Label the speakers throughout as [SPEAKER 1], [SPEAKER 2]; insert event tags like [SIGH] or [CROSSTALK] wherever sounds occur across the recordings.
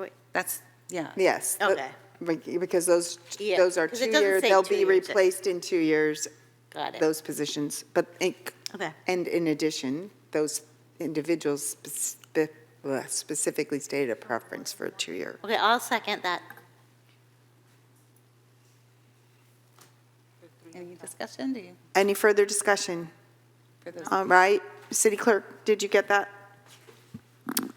[SPEAKER 1] Wait, That's, yeah.
[SPEAKER 2] Yes. the-
[SPEAKER 3] Okay.
[SPEAKER 2] be- Because those,
[SPEAKER 3] Yeah,
[SPEAKER 2] those are
[SPEAKER 3] 'cause it
[SPEAKER 2] two
[SPEAKER 3] doesn't
[SPEAKER 2] years,
[SPEAKER 3] say
[SPEAKER 2] they'll
[SPEAKER 3] two
[SPEAKER 2] be
[SPEAKER 3] years.
[SPEAKER 2] replaced in two years,
[SPEAKER 3] Got it.
[SPEAKER 2] those positions. But, in-
[SPEAKER 3] Okay.
[SPEAKER 2] and in addition, those individuals spec- bleh, specifically stated a preference for a two-year.
[SPEAKER 3] Okay, I'll second that.
[SPEAKER 1] Any discussion, do you?
[SPEAKER 2] Any further discussion?
[SPEAKER 1] for those-
[SPEAKER 2] All right, city clerk, did you get that?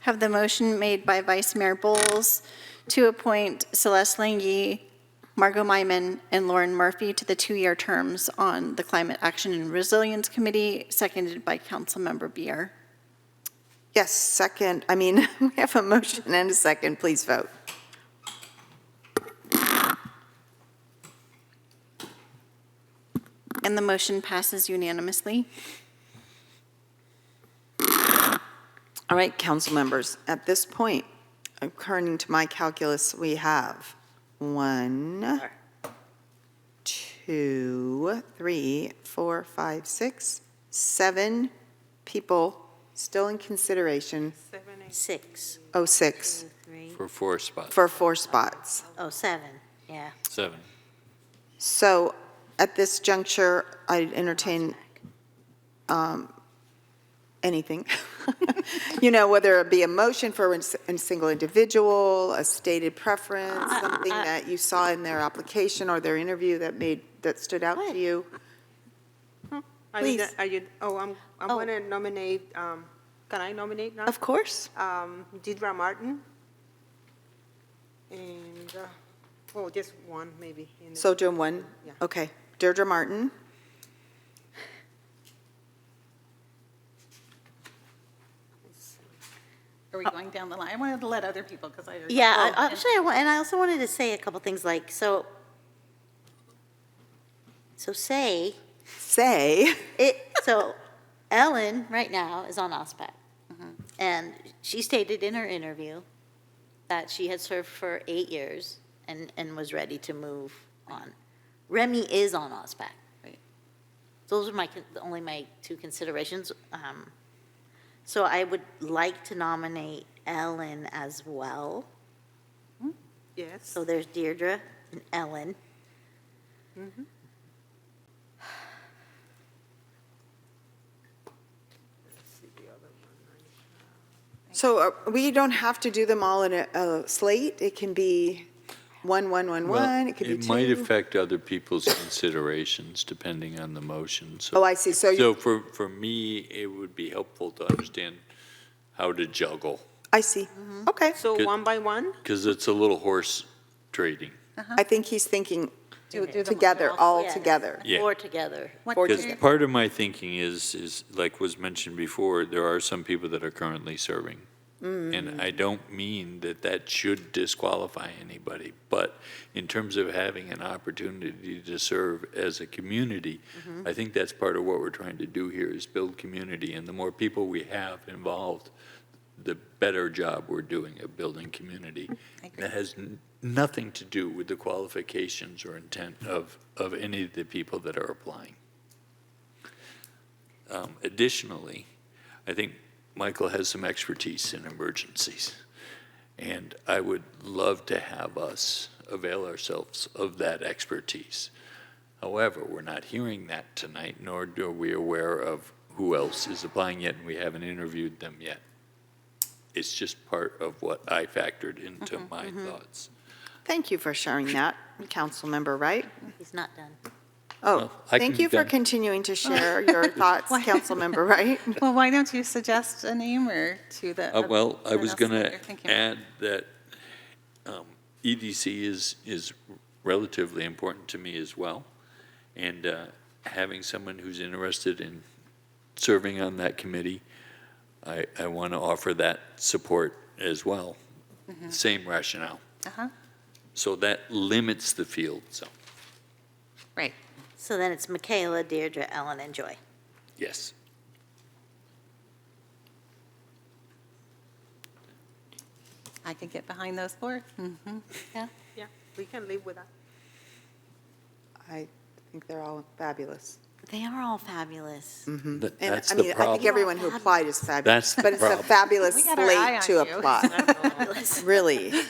[SPEAKER 4] Have the motion made by Vice Mayor Bowles to appoint Celeste Langy, Margot Myman, and Lauren Murphy to the two-year terms on the Climate Action and Resilience Committee, seconded by Councilmember Beer.
[SPEAKER 2] Yes, second, I mean, [LAUGHS] we have a motion and a second, please vote.
[SPEAKER 4] And the motion passes unanimously.
[SPEAKER 2] All right, council members, at this point, according to my calculus, we have one, two, three, four, five, six, seven people still in consideration,
[SPEAKER 3] Six,
[SPEAKER 2] oh, six,
[SPEAKER 3] two, three,
[SPEAKER 5] For four spots.
[SPEAKER 2] for four spots.
[SPEAKER 3] oh, seven, yeah.
[SPEAKER 5] Seven.
[SPEAKER 2] So at this juncture, I entertain um, anything. [LAUGHS] You know, whether it be a motion for a s- a single individual, a stated preference, something that you saw in their application or their interview that made, that stood out
[SPEAKER 3] What?
[SPEAKER 2] to you.
[SPEAKER 6] Are you,
[SPEAKER 2] Please.
[SPEAKER 6] done- are you, oh, I'm, I'm
[SPEAKER 3] Oh.
[SPEAKER 6] going to nominate, um, can I nominate now?
[SPEAKER 2] Of course.
[SPEAKER 6] Um, Deidra Martin. And, uh, well, just one maybe. in the-
[SPEAKER 2] So doing one?
[SPEAKER 6] Yeah.
[SPEAKER 2] Okay. Deirdre Martin,
[SPEAKER 1] Are we going down the line? I wanted to let other people, because I.
[SPEAKER 3] Yeah, I-
[SPEAKER 1] Oh, and-
[SPEAKER 3] actually, I wa- and I also wanted to say a couple things like, so, so say,
[SPEAKER 2] say, [LAUGHS]
[SPEAKER 3] it, so Ellen right now is on OSPAC.
[SPEAKER 1] Mm-hmm.
[SPEAKER 3] And she stated in her interview that she had served for eight years and, and was ready to move on. Remy is on OSPAC.
[SPEAKER 1] Right.
[SPEAKER 3] Those are my, con- only my two considerations. Um, So I would like to nominate Ellen as well.
[SPEAKER 6] Yes.
[SPEAKER 3] So there's Deirdre and Ellen.
[SPEAKER 2] so uh, we don't have to do them all in a- a slate. It can be one, one, one, one, it could be two.
[SPEAKER 5] It might affect other people's considerations depending on the motion. so-
[SPEAKER 2] Oh, I see. So you-
[SPEAKER 5] So for, for me, it would be helpful to understand how to juggle,
[SPEAKER 2] I see. Okay.
[SPEAKER 6] Mm-hmm. So
[SPEAKER 5] Good.
[SPEAKER 6] one by one?
[SPEAKER 5] because it's a little horse trading.
[SPEAKER 2] I think he's thinking
[SPEAKER 1] Do- do them
[SPEAKER 2] together, all
[SPEAKER 3] Yeah.
[SPEAKER 2] together.
[SPEAKER 5] Yeah.
[SPEAKER 3] Four together.
[SPEAKER 1] One,
[SPEAKER 2] Or
[SPEAKER 1] two,
[SPEAKER 5] Because part of my thinking is, is like was mentioned before, there are some people that are currently serving. And I don't mean that that should disqualify anybody, but in terms of having an opportunity to serve as a community, I think that's part of what we're trying to do here is build community. And the more people we have involved, the better job we're doing at building community. That has n- nothing to do with the qualifications or intent of, of any of the people that are applying. Um, Additionally, I think Michael has some expertise in emergencies, and I would love to have us avail ourselves of that expertise. However, we're not hearing that tonight, nor are we aware of who else is applying yet, and we haven't interviewed them yet. It's just part of what I factored into my thoughts.
[SPEAKER 2] Thank you for sharing that, Councilmember Wright.
[SPEAKER 3] He's not done.
[SPEAKER 2] Oh,
[SPEAKER 5] Well, I
[SPEAKER 2] thank
[SPEAKER 5] can
[SPEAKER 2] you for
[SPEAKER 5] then-
[SPEAKER 2] continuing to
[SPEAKER 1] [LAUGHS]
[SPEAKER 2] share
[SPEAKER 5] [LAUGHS]
[SPEAKER 2] your thoughts, Councilmember Wright.
[SPEAKER 1] well, why don't you suggest a name or to the?
[SPEAKER 5] Uh, Well, I
[SPEAKER 1] someone
[SPEAKER 5] was
[SPEAKER 1] else that
[SPEAKER 5] going to
[SPEAKER 1] you're thinking of?
[SPEAKER 5] add that um, EDC is, is relatively important to me as well. And uh, having someone who's interested in serving on that committee, I, I want to offer that support as well.
[SPEAKER 2] Mm-hmm.
[SPEAKER 5] Same rationale.
[SPEAKER 1] Uh-huh.
[SPEAKER 5] So that limits the field, so,
[SPEAKER 1] Right.
[SPEAKER 3] So then it's Michaela, Deirdre, Ellen, and Joy.
[SPEAKER 5] yes.
[SPEAKER 1] I could get behind those four. Mm-hmm.
[SPEAKER 6] Yeah, we can live with that.
[SPEAKER 2] I think they're all fabulous.
[SPEAKER 3] They are all fabulous.
[SPEAKER 5] That-
[SPEAKER 2] And
[SPEAKER 5] That's
[SPEAKER 2] I
[SPEAKER 5] the
[SPEAKER 2] mean, I think
[SPEAKER 5] problem.
[SPEAKER 2] everyone who applied is fabulous,
[SPEAKER 5] That's the
[SPEAKER 2] but it's a
[SPEAKER 5] problem.
[SPEAKER 2] fabulous
[SPEAKER 1] [LAUGHS] We got our eye
[SPEAKER 2] slate to
[SPEAKER 1] on you.
[SPEAKER 2] apply, really.